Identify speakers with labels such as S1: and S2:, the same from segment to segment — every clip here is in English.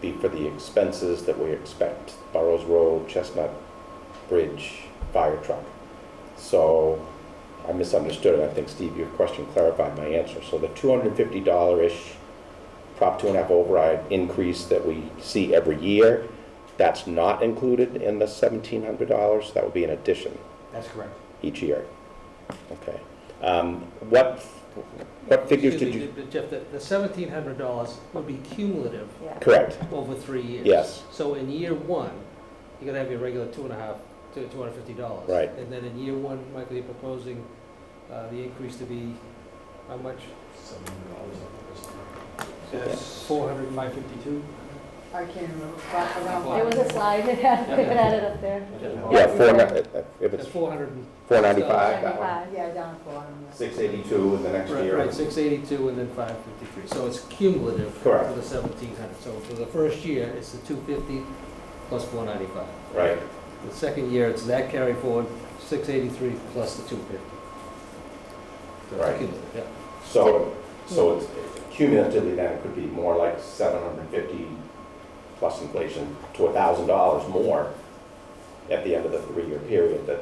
S1: be for the expenses that we expect, Burrows Road, Chestnut Bridge, fire truck. So I misunderstood it. I think, Steve, your question clarified my answer. So the $250-ish Prop two and a half override increase that we see every year, that's not included in the $1,700. That would be an addition
S2: That's correct.
S1: each year. Okay. Um, What, what figures
S2: Excuse
S1: did you?
S2: me, Jeff, the, the seventeen hundred dollars would be cumulative
S3: Yeah.
S1: Correct.
S2: over three years.
S1: Yes.
S2: So in year one, you're gonna have your regular two and a half, two, two hundred and fifty dollars.
S1: Right.
S2: And then in year one, Michael, you're proposing, uh, the increase to be, how much? Four hundred and five fifty-two?
S3: I can't remember, but around.
S2: Wow.
S3: There was a slide that had, they had it up there.
S1: Yeah, four, ni- uh, if
S2: That's
S1: it's
S2: four hundred and.
S1: four ninety-five, that one.
S3: Seventy-five, yeah, down at the bottom.
S1: Six eighty-two in the next
S2: Right,
S1: year.
S2: right, six eighty-two and then five fifty-three, so it's cumulative.
S1: Correct.
S2: For the seventeen hundred, so for the first year, it's the two fifty plus four ninety-five.
S1: Right.
S2: The second year, it's that carry forward, six eighty-three plus the two fifty.
S1: Right. So, so it's cumulatively then it could be more like seven hundred and fifty plus inflation to a thousand dollars more at the end of the three-year period that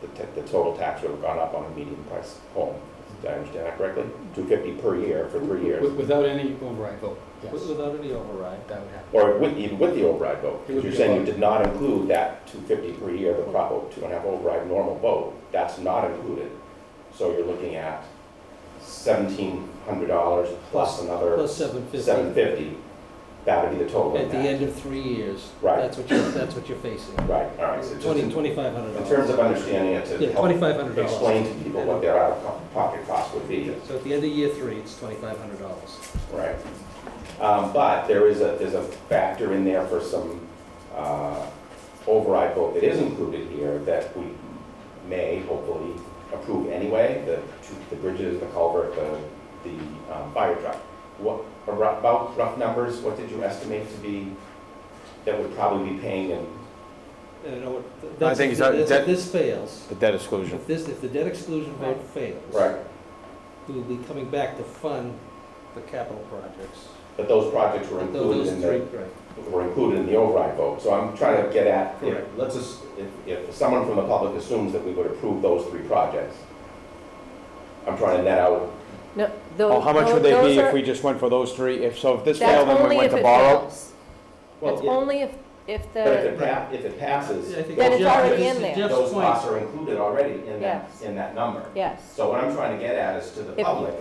S1: the, ta- the total tax would have gone up on a median price home. Did I understand that correctly? Two fifty per year for three years.
S4: Without any override vote,
S2: Without any override, that would happen.
S1: Or with, even with the override vote,
S4: It
S1: because
S4: would
S1: you're
S4: be
S1: saying you
S4: above.
S1: did not include that two fifty per year, the prop, two and a half override normal vote, that's not included. So you're looking at seventeen hundred dollars plus another
S2: Plus seven fifty.
S1: seven fifty, that would be the total
S2: At the
S1: impact.
S2: end of three years.
S1: Right.
S2: That's what you're, that's what you're facing.
S1: Right, all right, so just
S2: Twenty,
S1: in-
S2: twenty-five hundred
S1: in
S2: dollars.
S1: terms of understanding it,
S2: Yeah,
S1: to help
S2: twenty-five hundred dollars.
S1: explain to people what their out-of-pocket cost would be.
S2: So at the end of year three, it's twenty-five hundred dollars.
S1: Right. Um, But there is a, there's a factor in there for some uh, override vote that is included here that we may hopefully approve anyway, the, two- the bridges, the culvert, the, the um, fire truck. What, a rough- about rough numbers, what did you estimate to be, that would probably be paying in?
S2: I
S4: think
S2: if
S4: it's-
S2: this-
S4: that-
S2: If this fails,
S4: the debt exclusion.
S2: if this, if the debt exclusion vote fails. We will be coming back to fund the capital projects.
S1: But those projects were
S2: But
S1: included
S2: Those
S1: in
S2: three,
S1: the,
S2: right.
S1: were included in the override vote. So I'm trying to get at, if-
S2: Correct.
S1: let's, as- if, if someone from the public assumes that we would approve those three projects, I'm trying to net out,
S5: No,
S4: Well,
S5: those.
S4: Oh, how much would they
S5: those
S4: be
S5: are-
S4: if we just went for those three? If, so if this
S5: that's
S4: failed, then we
S5: only
S4: went
S5: if
S4: to
S5: it
S4: borrow?
S5: fails.
S1: well,
S5: That's
S1: yeah,
S5: only if, if
S1: but if it
S5: the,
S1: pa, if it passes,
S2: I think
S5: Then
S1: those
S5: it's
S2: Jeff-
S5: already
S2: Jeff's-
S5: in there.
S2: Jeff's
S1: those
S2: point-
S1: costs are included already in that,
S5: Yes.
S1: in that number.
S5: yes.
S1: So what I'm trying to get at is to the
S5: If-
S1: public,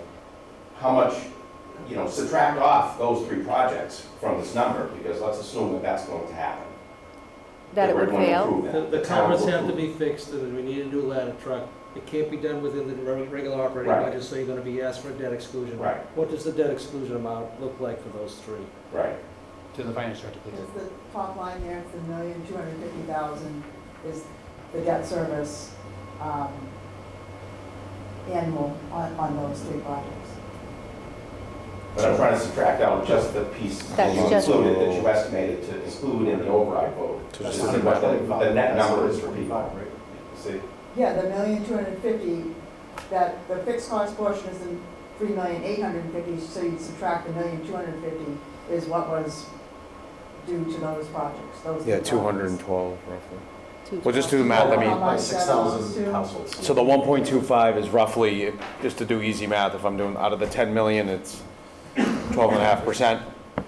S1: how much, you know, subtract off those three projects from this number, because let's assume that that's going to happen.
S5: That it
S1: we're
S5: would
S1: going to
S5: fail?
S1: approve that.
S2: The the
S1: town will
S2: culverts have to
S1: approve.
S2: be fixed, and we need a new ladder truck. It can't be done within the reg- regular operating
S1: Right.
S2: budget, so you're gonna be asked for a debt exclusion.
S1: Right.
S2: What does the debt exclusion amount look like for those three?
S1: Right,
S4: To the finance director,
S3: Is the top line there, it's a million, two hundred and fifty thousand is the debt service, um, annual on, on those three projects.
S1: but I'm trying to subtract out just the piece that
S5: That's
S1: you
S5: just-
S1: included, that you estimated to include in the override vote. To
S4: That's
S1: see what the, the net number is for people,
S6: right?
S1: see?
S3: Yeah, the million, two hundred and fifty, that, the fixed cost portion is in three million, eight hundred and fifty, so you subtract the million, two hundred and fifty is what was due to those projects, those. three
S4: Yeah, two hundred and
S3: projects.
S4: twelve roughly.
S5: two-
S4: Well, just do the math, I mean,
S6: By six thousand households.
S4: so the one point two five is roughly, just to do easy math, if I'm doing, out of the ten million, it's twelve and a half percent.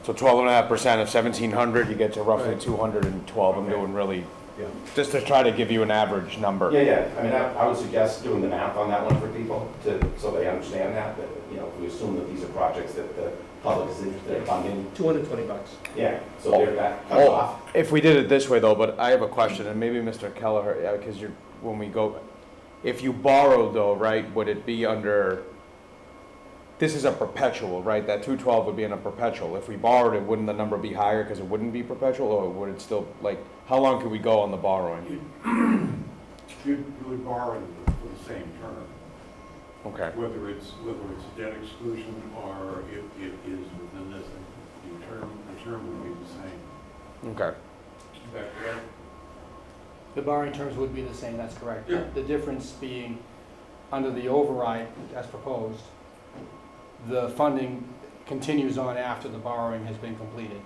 S4: So twelve and a half percent of seventeen hundred, you get to roughly
S2: Right.
S4: two hundred and twelve. I'm
S1: Okay.
S4: doing really,
S6: Yeah.
S4: just to try to give you an average number.
S1: Yeah, yeah, I mean, I, I would suggest doing the math on that one for people to, so they understand that, that, you know, we assume that these are projects that the public is interested in funding.
S2: Two hundred and twenty bucks.
S1: Yeah, so they're, that comes
S4: Oh.
S1: off.
S4: If we did it this way though, but I have a question, and maybe Mr. Kelleher, yeah, because you're, when we go, if you borrow though, right, would it be under, this is a perpetual, right? That two twelve would be in a perpetual. If we borrowed it, wouldn't the number be higher because it wouldn't be perpetual, or would it still, like, how long could we go on the borrowing?
S7: You, you would borrow it for the same term,
S4: Okay,
S7: whether it's, whether it's debt exclusion or it, it is within this, the term, the term would be the same.
S4: okay.
S7: Is that correct?
S8: The borrowing terms would be the same, that's correct.
S7: Yeah.
S8: The difference being, under the override as proposed, the funding continues on after the borrowing has been completed.